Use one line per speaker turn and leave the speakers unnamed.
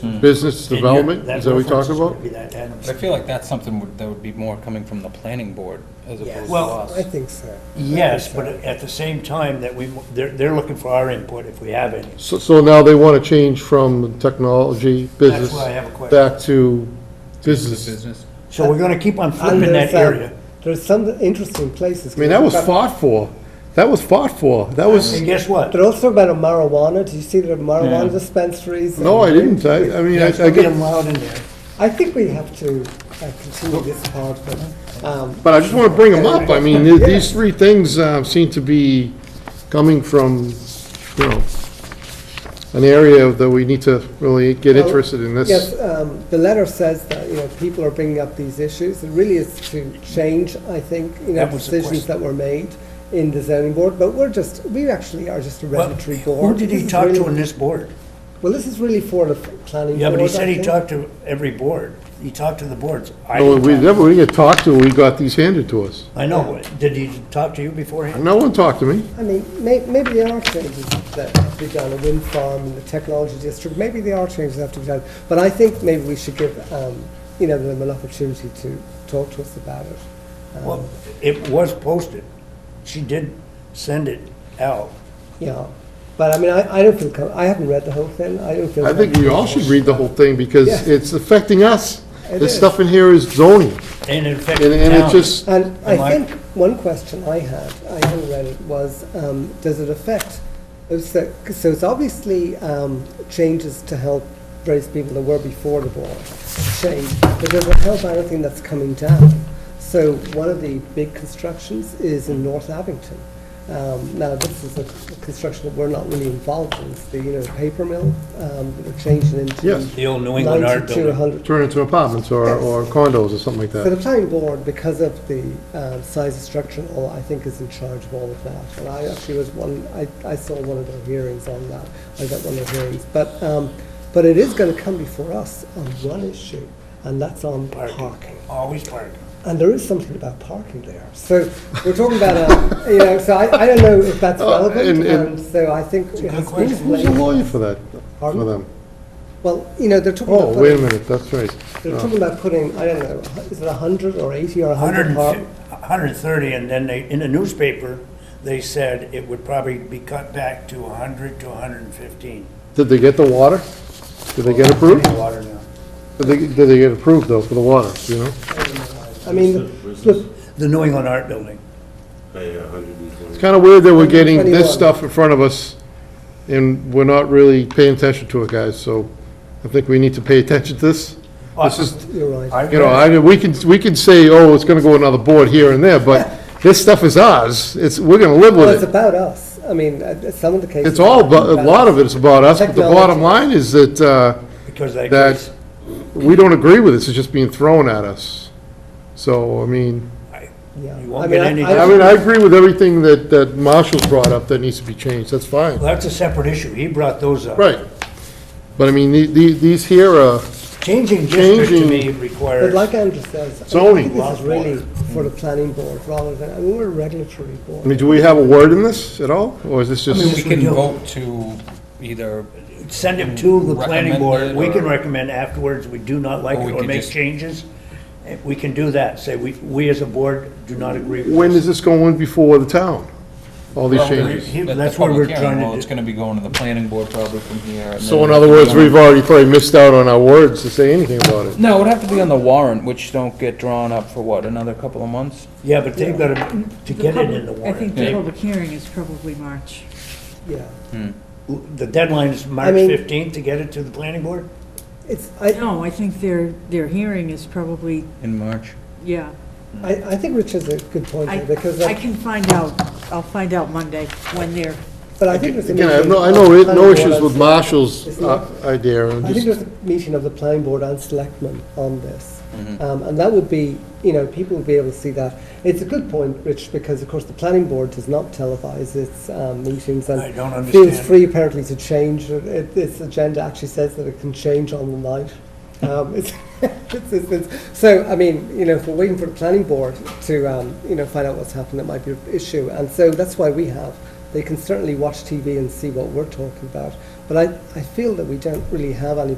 Business development, is that what we talking about?
I feel like that's something would- that would be more coming from the planning board as opposed to
Well,
us.
I think so.
Yes, but at the same time that we, they're, they're looking for our input if we have any.
So, so now they want to change from technology, business,
why I have a question.
back to business.
Business.
So we're gonna keep on
And
flipping that
there's, um,
area.
There's some interesting places.
I mean, that was fought for. That was fought for. That was,
And guess what?
But also about marijuana, do you see the marijuana
Yeah.
dispensaries? and-
no, I didn't. I, I mean, I, I
Get
get,
them loud in there.
I think we have to uh, continue this part, but, um,
but I just want to bring them up. I mean, th- these three things, uh, seem to be coming from, you know, an area that we need to really get
Well,
interested in this.
Yes, um, the letter says that, you know, people are bringing up these issues. It really is to change, I think, you know,
That was the
decisions that were made in the zoning board, but we're just, we actually are just a
Well,
regulatory board.
Who did
This
he
is
talk to
really-
on this board?
Well, this is really for the planning board.
Yeah, but he
I
said he
think.
talked to every board. He talked to the boards. I
No,
didn't
we
talk.
never, we didn't get talked to, we got these handed to us.
I know. Did he talk to you beforehand?
No one talked to me.
I mean, may, maybe there are changes that have to be done, a wind farm in the technology district, maybe there are changes that have to be done. But I think maybe we should give, um, you know, them an opportunity to talk to us about it. Um,
Well, it was posted. She did send it out.
Yeah, but I mean, I, I don't feel, com- I haven't read the whole thing, I don't feel.
I think we all should read the whole thing because
Yeah.
it's affecting us.
It
This
is.
stuff in here is zoning,
And in fact,
and, and it
now,
just,
And
Am I-
I think one question I had, I haven't read it, was, um, does it affect, it was the- so it's obviously, um, changes to help raise people that were before the board change, but does it help anything that's coming down? So one of the big constructions is in North Abington. Um, now, this is a construction that we're not really involved in, it's the, you know, paper mill, um, that they're changing into.
Yes.
The old New England art
92,
building.
100
turn into apartments or, or condos or something like
So the
that.
planning board, because of the um, size and structure and all, I think is in charge of all of that. And I actually was one, I, I saw one of their hearings on that, I got one of their hearings. But, um, but it is gonna come before us on one issue, and that's on parking.
Always parking.
And there is something about parking there. So we're talking about, uh, you know, so I, I don't know if that's
Oh, and-
relevant,
and-
and so I think it has to be
question.
Who's the
explained.
lawyer for that, for
Pardon?
them?
Well, you know, they're talking about.
Oh, wait a
putting-
minute, that's right. Uh,
They're talking about putting, I don't know, is it a hundred or eighty or a hundred par-
130, and then they, in the newspaper, they said it would probably be cut back to 100 to 115.
Did they get the water? Did they get approved?
Water now.
Did they, did they get approved though for the water, you know?
I mean, the-
Where's
the-
this?
The New England Art Building.
Pay a hundred and twenty.
It's kind of weird that we're getting this
121.
stuff in front of us and we're not really paying attention to it, guys, so I think we need to pay attention to this. This is,
You're right.
I've
You know,
read-
I, we can, we can say, oh, it's gonna go another board here and there, but this stuff is ours. It's, we're gonna live
Well, it's
with it.
about us. I mean, uh, some of the cases.
It's all, but a lot of it is about us, but the bottom
Technology.
line is that, uh,
Because they.
that we don't agree with this, it's just being thrown at us. So, I mean,
Yeah.
You won't
I mean,
get
I-
any-
I mean, I agree with everything that, that Marshall's brought up that needs to be changed, that's fine,
Well, that's a separate issue. He brought those up.
right. But I mean, the, the, these here are,
Changing district to
Changing-
me
But
requires,
like Andrew says. I
Zoning.
think This
Laws
is
board.
really for the planning board rather than, I mean, we're a regulatory
I mean,
board.
do we have a word in this at all, or is this
We
just,
can vote to either,
send it to the planning board.
Recommend it
We can
or-
recommend afterwards, we do not like
Or
it
we
or
could
make
just-
changes. Eh, We can do that. Say, we, we as a board do not agree with
when
this.
is this going before the town? All these
well,
changes?
he-
the- the
that's what we're
public hearing,
trying to
well,
do.
it's gonna be going to the planning board probably from here. and
So
then
in
it'll
other
be
words,
on-
we've already probably missed out on our words to say anything about it.
No, it would have to be on the warrant, which don't get drawn up for what, another couple of months?
Yeah, but they've got to, to get it in the
I think
warrant.
the
Yeah.
public hearing is probably March.
Yeah.
The deadline is March
mean-
15th to get it to the planning board?
It's, I,
No, I think their, their hearing is probably,
In March.
yeah.
I, I think Rich has a good point
I,
there
uh,
because, uh,
I
I-
can find out, I'll find out Monday when they're,
but I think there's a
Again, I have
meeting
no, I
of
know,
the
it-
planning
no
board
issues
and
with
select-
Marshall's
It's
uh,
not-
idea, and
I think
just,
there's a meeting of the planning board and selectmen on this.
Mm-hmm.
Um, and that would be, you know, people would be able to see that. It's a good point, Rich, because of course the planning board does not televise its um, meetings and
I don't
feels
understand.
free apparently to change. It, it, its agenda actually says that it can change on the night. Um, it's, it's, it's, it's, so, I mean, you know, if we're waiting for the planning board to, um, you know, find out what's happened, that might be an issue. And so that's why we have. They can certainly watch TV and see what we're talking about. But I, I feel that we don't really have any